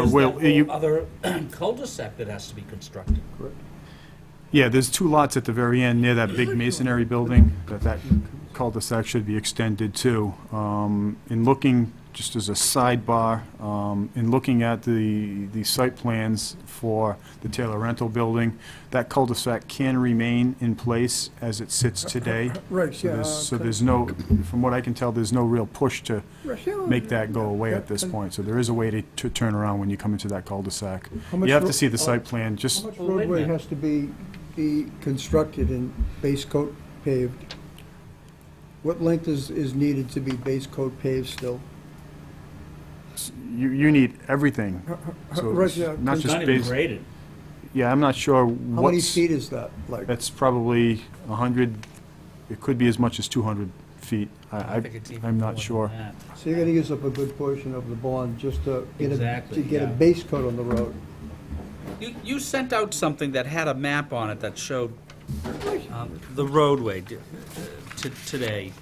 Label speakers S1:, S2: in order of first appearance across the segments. S1: There's
S2: Well,
S1: that
S2: you-
S1: whole other cul-de-sac that has to be constructed.
S2: Yeah, there's two lots at the very end near that big masonry building that that cul-de-sac should be extended to. Um, In looking, just as a sidebar, um, in looking at the, the site plans for the Taylor Rental Building, that cul-de-sac can remain in place as it sits today.
S3: Right,
S2: So
S3: yeah.
S2: there's, so
S3: okay.
S2: there's no, from what I can tell, there's no real push to
S3: Right, yeah,
S2: make that go away at this
S3: yeah,
S2: point. So there is a way to, to turn around when you come into that cul-de-sac.
S3: How much
S2: You have
S3: ro-
S2: to see the site plan, just
S3: How much
S1: Well, wait a
S3: roadway
S1: minute.
S3: has to be, be constructed and base coat paved? What length is, is needed to be base coat paved still?
S2: You, you need everything. So
S3: Right,
S2: it's
S3: yeah,
S2: not
S1: It's
S2: just
S1: not even
S2: base-
S1: graded.
S2: Yeah, I'm not sure
S3: How many
S2: what's,
S3: feet is that, like?
S2: that's probably 100, it could be as much as 200 feet. I,
S1: I
S2: I-
S1: think it's even
S2: I'm
S1: more
S2: not
S1: than
S2: sure.
S1: that.
S3: So you're gonna use up a good portion of the bond just to get a,
S1: Exactly,
S3: to get a
S1: yeah.
S3: base coat on the road?
S4: You, you sent out something that had a map on it that showed um, the roadway d- to, today.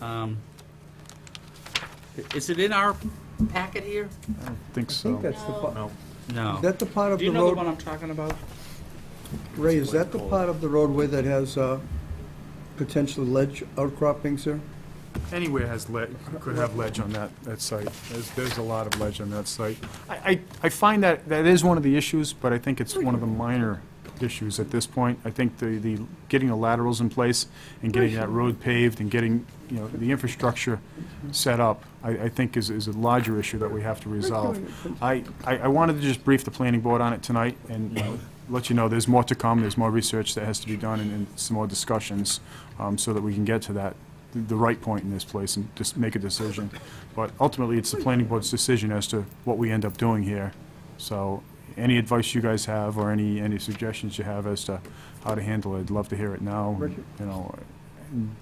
S4: Um, Is it in our packet here?
S2: I don't think
S3: I think
S2: so.
S3: that's the, pa-
S4: No.
S3: is that the part of
S4: Do
S3: the
S4: you know the one
S3: road,
S4: I'm talking about?
S3: Ray, is that the part of the roadway that has, uh, potential ledge outcroppings here?
S2: Anywhere has ledge, could have ledge on that, that site. There's, there's a lot of ledge on that site. I, I- I find that, that is one of the issues, but I think it's one of the minor issues at this point. I think the, the, getting the laterals in place and getting that road paved and getting, you know, the infrastructure set up, I, I think is, is a larger issue that we have to resolve. I, I I wanted to just brief the planning board on it tonight and you know, let you know there's more to come, there's more research that has to be done and- and some more discussions um, so that we can get to that, th- the right point in this place and just make a decision. But ultimately, it's the planning board's decision as to what we end up doing here. So any advice you guys have or any, any suggestions you have as to how to handle it, I'd love to hear it now,
S3: Richard?
S2: you know.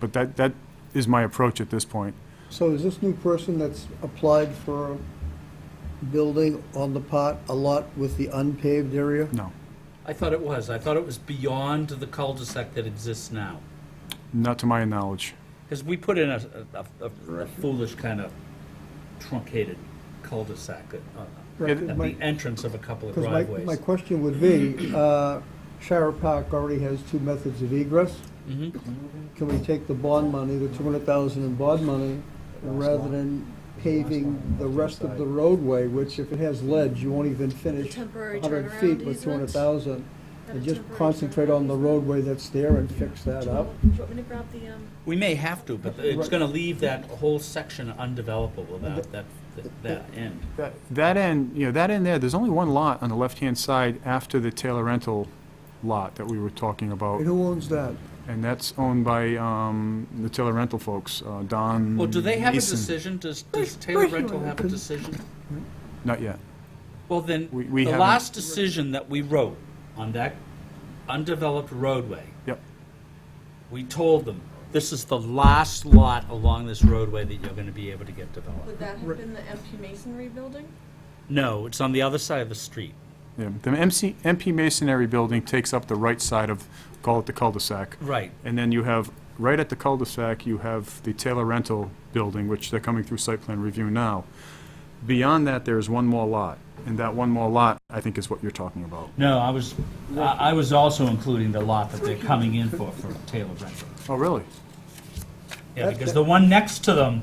S2: But that, that is my approach at this point.
S3: So is this new person that's applied for building on the pot a lot with the unpaved area?
S2: No,
S1: I thought it was. I thought it was beyond the cul-de-sac that exists now.
S2: not to my knowledge.
S1: Because we put in a, a- a- a foolish kind of truncated cul-de-sac at, uh,
S3: Right,
S1: at
S3: my-
S1: the entrance of a couple of
S3: Because my,
S1: driveways.
S3: my question would be, uh, Shire Park already has two methods of egress.
S1: Mm-hmm.
S3: Can we take the bond money, the two hundred thousand in bond money, rather than paving the rest of the roadway, which if it has ledge, you won't even finish
S5: temporary
S3: hundred
S5: turnaround
S3: feet with
S5: easements?
S3: two hundred thousand?
S5: Have
S3: And
S5: a
S3: just
S5: temporary
S3: concentrate
S5: turnaround
S3: on the
S5: easement?
S3: roadway that's there and fix that
S5: Do you
S3: up?
S5: want- do you want me to grab the, um,
S1: We may have to, but it's going to leave that whole section undevelopable, that, that, that end.
S2: That- That end, you know, that end there, there's only one lot on the left-hand side after the Taylor Rental lot that we were talking
S3: And
S2: about,
S3: who owns that?
S2: and that's owned by um, the Taylor Rental folks, uh, Don
S4: Well, do they have a
S2: Mason.
S4: decision? Does, does Taylor Rental have a decision?
S2: Not yet.
S4: Well, then,
S2: We- we
S4: the
S2: haven't-
S4: last decision that we wrote,
S1: On that undeveloped roadway,
S2: Yep.
S1: we told them, this is the last lot along this roadway that you're going to be able to get developed.
S5: would that have been the MP Masonry building?
S1: No, it's on the other side of the street.
S2: Yeah. The MC, MP Masonry building takes up the right side of, call it the cul-de-sac.
S1: Right.
S2: And then you have, right at the cul-de-sac, you have the Taylor Rental building, which they're coming through site plan review now. Beyond that, there is one more lot, and that one more lot, I think, is what you're talking about.
S1: No, I was, I I was also including the lot that they're coming in for, for Taylor Rental.
S2: Oh, really?
S1: Yeah, because the one next to them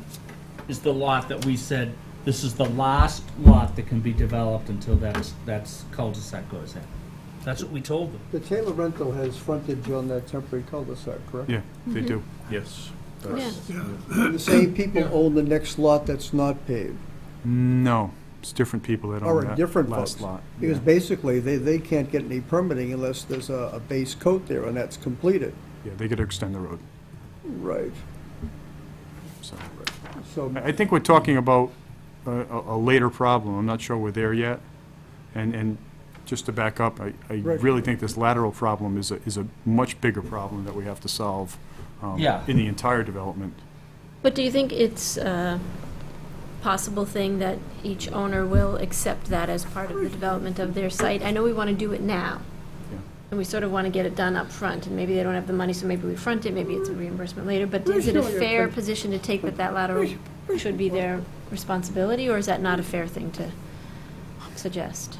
S1: is the lot that we said, this is the last lot that can be developed until that's, that's cul-de-sac goes in. That's what we told them.
S3: The Taylor rental has frontage on that temporary cul-de-sac, correct?
S2: Yeah, they do.
S6: Yes.
S3: The same people own the next lot that's not paved,
S2: No, it's different people that
S3: or
S2: own
S3: a
S2: that
S3: different
S2: last
S3: folks.
S2: lot.
S3: Because
S2: Yeah.
S3: basically, they, they can't get any permitting unless there's a, a base coat there and that's completed.
S2: Yeah, they gotta extend the road,
S3: Right.
S2: so.
S3: So,
S2: I I think we're talking about a, a a later problem, I'm not sure we're there yet. And, and just to back up, I, I
S3: Right.
S2: really think this lateral problem is a, is a much bigger problem that we have to solve um,
S1: Yeah.
S2: in the entire development.
S7: But do you think it's a possible thing that each owner will accept that as part of the development of their site? I know we want to do it now,
S2: Yeah.
S7: and we sort of want to get it done up front, and maybe they don't have the money, so maybe we front it, maybe it's a reimbursement later, but is it a fair position to take that that lateral should be their responsibility, or is that not a fair thing to, suggest.